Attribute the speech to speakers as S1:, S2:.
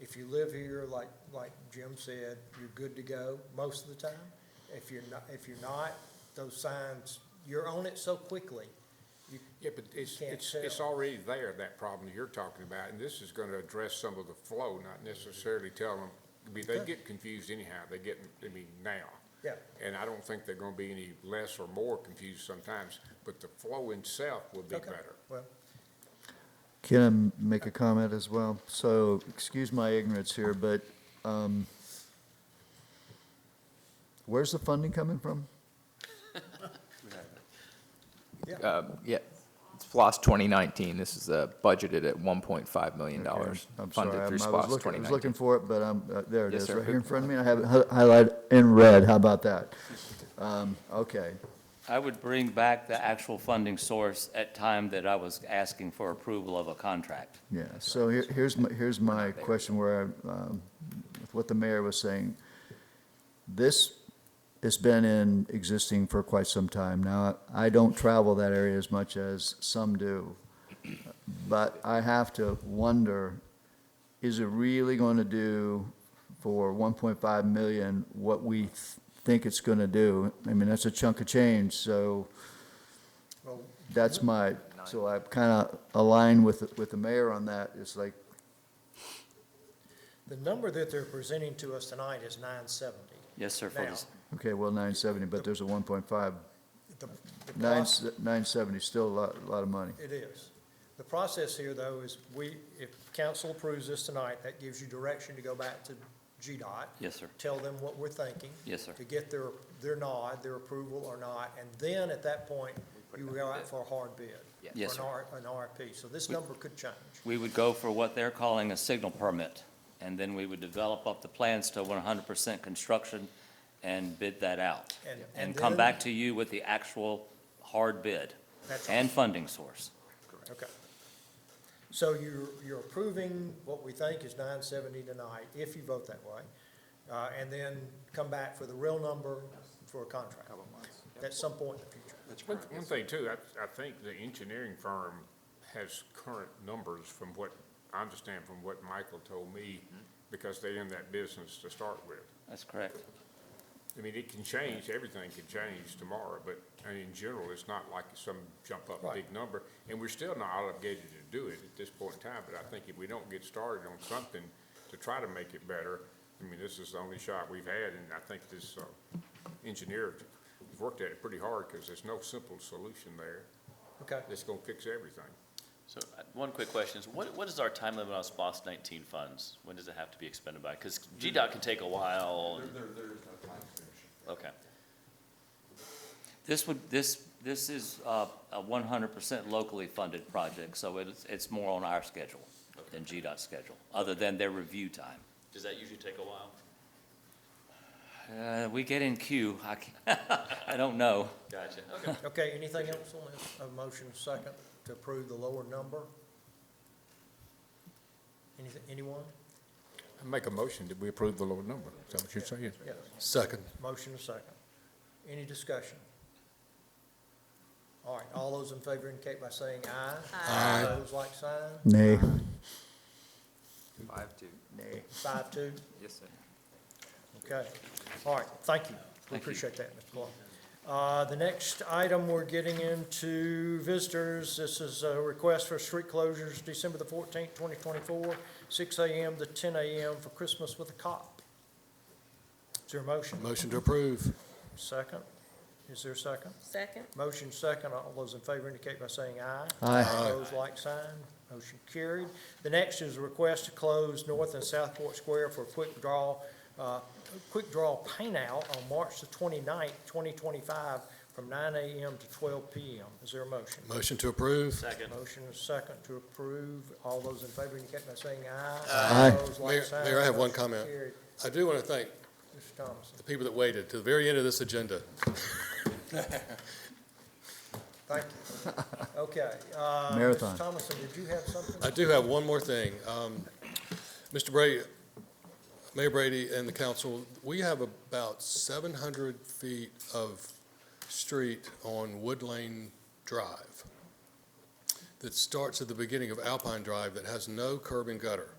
S1: If you live here, like, like Jim said, you're good to go most of the time. If you're not, if you're not, those signs, you're on it so quickly. you-
S2: Yeah, but it's,
S1: Can't
S2: it's, it's
S1: tell.
S2: already there, that problem you're talking about, and this is gonna address some of the flow, not necessarily tell them, I mean, they
S1: Okay.
S2: get confused anyhow, they get, I mean, now.
S1: Yeah.
S2: And I don't think they're gonna be any less or more confused sometimes, but the flow itself will be
S1: Okay.
S2: better.
S1: Well,
S3: Can I make a comment as well? So, excuse my ignorance here, but um, where's the funding coming from?
S4: Uh, Yeah, it's FLOSS 2019. This is uh, budgeted at $1.5 million
S3: I'm sorry,
S4: funded through
S3: I'm- I was looking,
S4: SPOS
S3: I was
S4: 2019.
S3: looking for it, but i uh there it
S4: Yes,
S3: is,
S4: sir.
S3: right here in front of me. I have it hi- highlighted in red. How about that? Um, Okay.
S5: I would bring back the actual funding source at time that I was asking for approval of a contract.
S3: Yeah, so here- here's, my- here's my
S4: not there.
S3: question where, I, um, with what the mayor was saying. This has been in, existing for quite some time. Now, I don't travel that area as much as some do. But I have to wonder, is it really going to do for 1.5 million what we th- think it's going to do? I mean, that's a chunk of change, so
S1: well,
S3: that's my, so I kind of align with, with the mayor on that. It's like,
S1: the number that they're presenting to us tonight is nine seventy.
S5: Yes, sir, for this,
S3: Okay, well, nine seventy, but there's a one point five,
S1: The the
S3: nine,
S1: proc-
S3: nine seventy, still a lot, a lot of money.
S1: It is. The process here, though, is we, if council approves this tonight, that gives you direction to go back to GDOT,
S5: yes, sir,
S1: tell them what we're thinking.
S5: yes, sir.
S1: to get their, their nod, their approval or not, and then at that point, you go out for a hard bid.
S5: Yes,
S1: for
S5: sir.
S1: An R, an RFP, so this number could change.
S5: We would go for what they're calling a signal permit, and then we would develop up the plans to one hundred percent construction and bid that out. And come
S1: then-
S5: back to you with the actual hard bid
S1: That's
S5: and funding source.
S1: Okay. So you're, you're approving what we think is nine seventy tonight, if you vote that way, uh, and then come back for the real number for a contract. At some point in the future.
S2: One, one thing too, I, I think the engineering firm has current numbers from what, I understand from what Michael told me, because they're in that business to start with.
S5: That's correct.
S2: I mean, it can change, everything can change tomorrow, but, and in general, it's not like some jump up
S1: Right.
S2: big number. And we're still not obligated to do it at this point in time, but I think if we don't get started on something to try to make it better, I mean, this is the only shot we've had, and I think this, uh, engineer has worked at it pretty hard, because there's no simple solution there
S1: Okay,
S2: that's gonna fix everything.
S6: So, uh, one quick question is, what, what is our time limit on SPOS nineteen funds? When does it have to be expended by? Because GDOT can take a while. and- Okay,
S5: This would, this, this is uh, a one hundred percent locally funded project, so it's, it's more on our schedule than GDOT's schedule, other than their review time.
S6: does that usually take a while?
S5: Uh, we get in queue, I, can't- I don't know.
S6: Gotcha, okay.
S1: okay, anything else on this? A motion second to approve the lower number? Anything, anyone?
S2: I make a motion that we approve the lower number, is that what you're saying?
S1: Yes.
S7: Second.
S1: Motion is second. Any discussion? All right, all those in favor indicate by saying aye. Aye. Those like sign,
S3: Nay.
S4: Five, two.
S1: five, two,
S4: Yes, sir.
S1: okay. All right, thank you. We appreciate that, Mr. Clark. Uh, the next item, we're getting into visitors. This is a request for street closures, December the fourteenth, twenty twenty-four, six AM to ten AM for Christmas with a cop. Is there a motion?
S7: Motion to approve.
S1: Second? Is there a second?
S8: Second?
S1: Motion second, all those in favor indicate by saying aye.
S3: Aye.
S1: Opposed, like sign, motion carried. The next is a request to close North and Southport Square for a quick draw, uh, quick draw paint out on March the 29th, twenty-five, from nine AM to twelve PM. Is there a motion?
S7: Motion to approve.
S6: Second.
S1: Motion is second to approve, all those in favor indicate by saying aye.
S3: Aye.
S1: Opposed, like
S7: Mayor-
S1: sign,
S7: Mayor, I have one
S1: motion
S7: comment.
S1: carried.
S7: I do want to thank
S1: Mr. Thompson,
S7: the people that waited to the very end of this agenda.
S1: thank you. Okay, uh, Mr.
S3: Marathon.
S1: Thomason, did you have something?
S7: I do have one more thing. Um, Mr. Brady, Mayor Brady and the council, we have about 700 feet of street on Wood Lane Drive that starts at the beginning of Alpine Drive that has no curb and gutter.